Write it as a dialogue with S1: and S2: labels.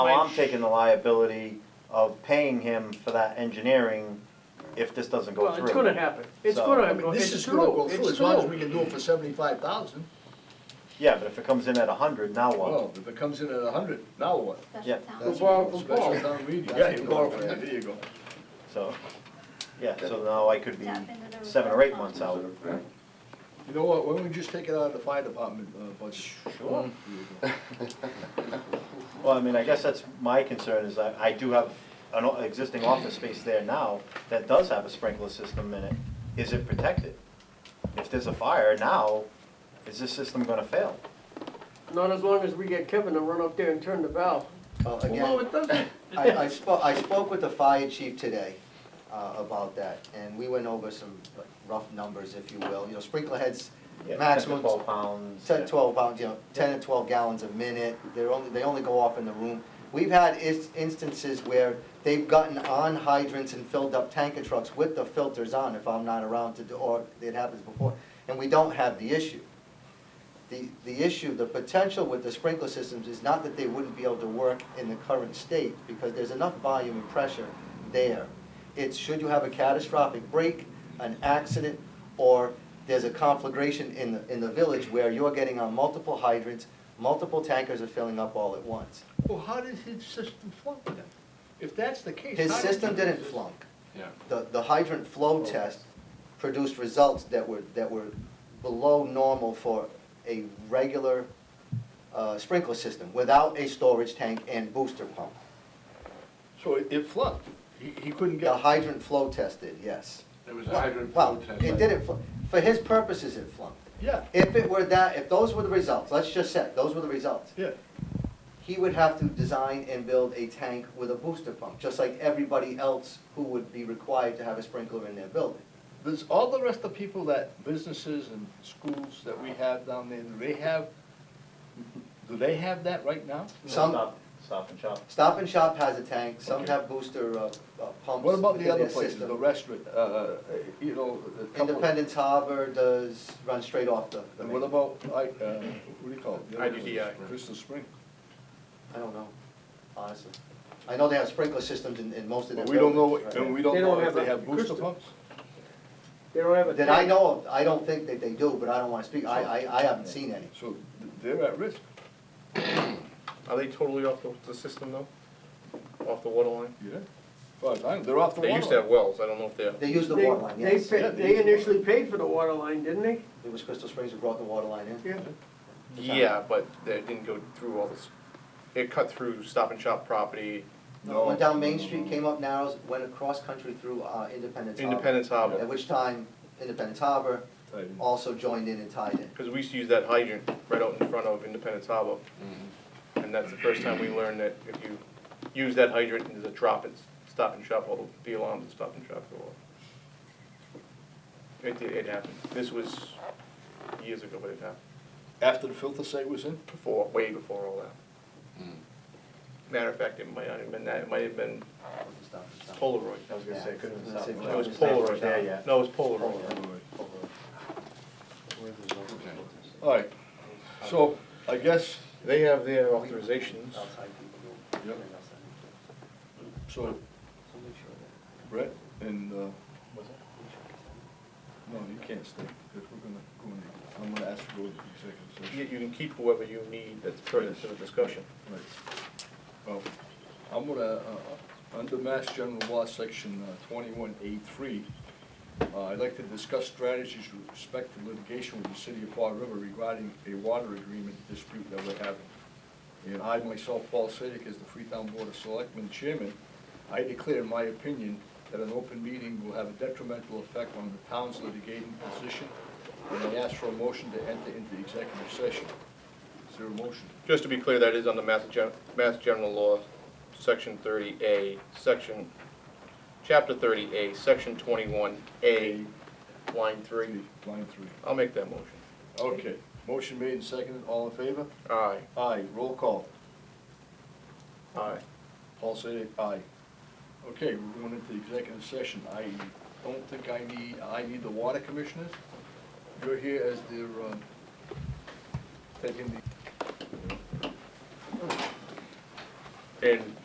S1: Now I'm taking the liability of paying him for that engineering if this doesn't go
S2: Well,
S1: through.
S2: it's gonna happen. It's
S1: So-
S2: gonna,
S1: I
S3: I mean,
S2: go-
S3: this
S2: it's
S3: is gonna go
S2: true,
S3: through,
S2: it's
S3: as long as
S2: true.
S3: we can do it for seventy-five thousand.
S1: Yeah, but if it comes in at a hundred, now what?
S3: Well, if it comes in at a hundred, now what?
S1: Yeah.
S4: Special town.
S3: Oh, That's
S2: borrow
S3: a
S2: from
S3: special
S2: Paul.
S3: town meeting. Yeah, you borrow from, there you go.
S1: So, yeah, so now I could be
S4: Tap into the
S1: seven or
S4: reserve
S1: eight months
S4: fund.
S1: out.
S3: You know what, why don't we just take it out of the fire department, uh, budget? Sure.
S1: Well, I mean, I guess that's my concern is I, I do have an o- existing office space there now that does have a sprinkler system in it. Is it protected? If there's a fire now, is this system gonna fail?
S2: Not as long as we get Kevin to run up there and turn the valve.
S5: Well,
S2: No,
S5: again,
S2: it doesn't.
S5: I, I spoke, I spoke with the fire chief today, uh, about that, and we went over some like, rough numbers, if you will, you know, sprinkler heads,
S1: Yeah, 10 to
S5: maximum
S1: Twelve pounds.
S5: ten,
S1: yeah.
S5: twelve pounds, you know, ten to twelve gallons a minute, they're only, they only go off in the room. We've had is- instances where they've gotten on hydrants and filled up tanker trucks with the filters on, if I'm not around to do, or it happens before, and we don't have the issue. The, the issue, the potential with the sprinkler systems is not that they wouldn't be able to work in the current state, because there's enough volume and pressure there. It's should you have a catastrophic break, an accident, or there's a conflagration in the, in the village where you're getting on multiple hydrants, multiple tankers are filling up all at once.
S3: Well, how did his system flunk then? If that's the case.
S5: His
S3: how did
S5: system
S3: his
S5: didn't
S3: system-
S5: flunk. The, the hydrant flow test produced results that were, that were below normal for a regular uh, sprinkler system without a storage tank and booster pump.
S3: So it- it flunked, he, he couldn't
S5: The
S3: get.
S5: hydrant flow tested, yes.
S3: There
S5: Well, Well, it didn't, fl- for his purposes, it flunked.
S3: Yeah,
S5: If it were that, if those were the results, let's just say, those were the results,
S3: yeah,
S5: he would have to design and build a tank with a booster pump, just like everybody else who would be required to have a sprinkler in their building.
S3: there's all the rest of people that, businesses and schools that we have down there, do they have, do they have that right now?
S5: Some,
S1: Stop, stop and shop.
S5: Stop and Shop has a tank, some
S3: Okay.
S5: have booster uh, uh, pumps.
S3: What about
S5: in
S3: the other
S5: their
S3: places, the
S5: system.
S3: restaurant, uh, uh, you know, a couple of-
S5: Independence Harbor does, run straight off the. the
S3: And what
S5: main.
S3: about, I, uh, what do you call it? The other one,
S6: IDDI.
S3: Crystal Spring.
S5: I don't know, honestly. I know they have sprinkler systems in, in most of their
S3: But we don't
S5: buildings.
S3: know,
S5: right?
S3: and we
S2: They
S3: don't
S2: don't
S3: know if
S2: have
S3: they
S2: a
S3: have booster
S2: crystal.
S3: pumps?
S2: They don't have a.
S5: That I
S2: tank.
S5: know of, I don't think that they do, but I don't wanna speak, I, I, I haven't seen any.
S3: So th- they're at risk.
S6: Are they totally off the, the system though? Off the water line?
S3: Yeah. Well, I- they're off the water.
S6: They used to have wells, I don't know if they're,
S5: They use the
S2: They-
S5: water line,
S2: they
S5: yes.
S2: pa-
S3: Yeah, they
S2: They initially paid for the water line, didn't they?
S5: It was Crystal Springs who brought the water line in.
S2: Yeah.
S6: yeah, but they didn't go through all this. It cut through Stop and Shop property,
S3: No.
S5: Went down Main Street, came up Narrows, went across country through, uh, Independence Harbor.
S6: Independence
S5: At
S6: Harbor,
S5: which time, Independence Harbor
S3: Right.
S5: also joined in and tied in.
S6: because we used to use that hydrant right out in front of Independence Harbor.
S3: Mm-hmm.
S6: And that's the first time we learned that if you use that hydrant, there's a drop at Stop and Shop, all the alarms at Stop and Shop go off. It did, it happened. This was years ago, but it happened.
S3: After the filter site was in?
S6: before, way before all that. Matter of fact, it might not have been that, it might have been
S5: Wasn't Stop and Shop.
S6: Polaroid.
S1: I was gonna say, couldn't have stopped.
S5: Yeah, I was
S6: No,
S5: It's
S6: it was
S5: not
S6: Polaroid.
S1: There yet.
S6: No, it was Polaroid.
S3: All right, so I guess,
S6: They have their authorizations.
S3: Yep. so, Brett and, uh, no, you can't stay, because we're gonna, go in. I'm gonna ask you to go to executive session.
S6: You, you can keep whoever you need that's pertinent to the discussion.
S3: Right. Well, I'm gonna, uh, uh, under Mass General Law, Section uh, twenty-one A three, uh, I'd like to discuss strategies with respect to litigation with the city of Fall River regarding a water agreement dispute that we're having. And I myself, Paul Sadek, as the Freetown Board of Selectmen Chairman, I declare in my opinion that an open meeting will have a detrimental effect on the town's litigating position, and I ask for a motion to enter into executive session. Is there a motion?
S6: Just to be clear, that is under Mass Gen, Mass General Law, Section thirty A, Section, Chapter thirty A, Section twenty-one A, line three.
S3: Line three.
S6: I'll make that motion.
S3: Okay, motion made and seconded, all in favor?
S6: Aye.
S3: Aye, roll call.
S6: Aye.
S3: Paul said aye. Okay, we're going into executive session. I don't think I need, I need the water commissioners. You're here as their, um, taking the.
S6: And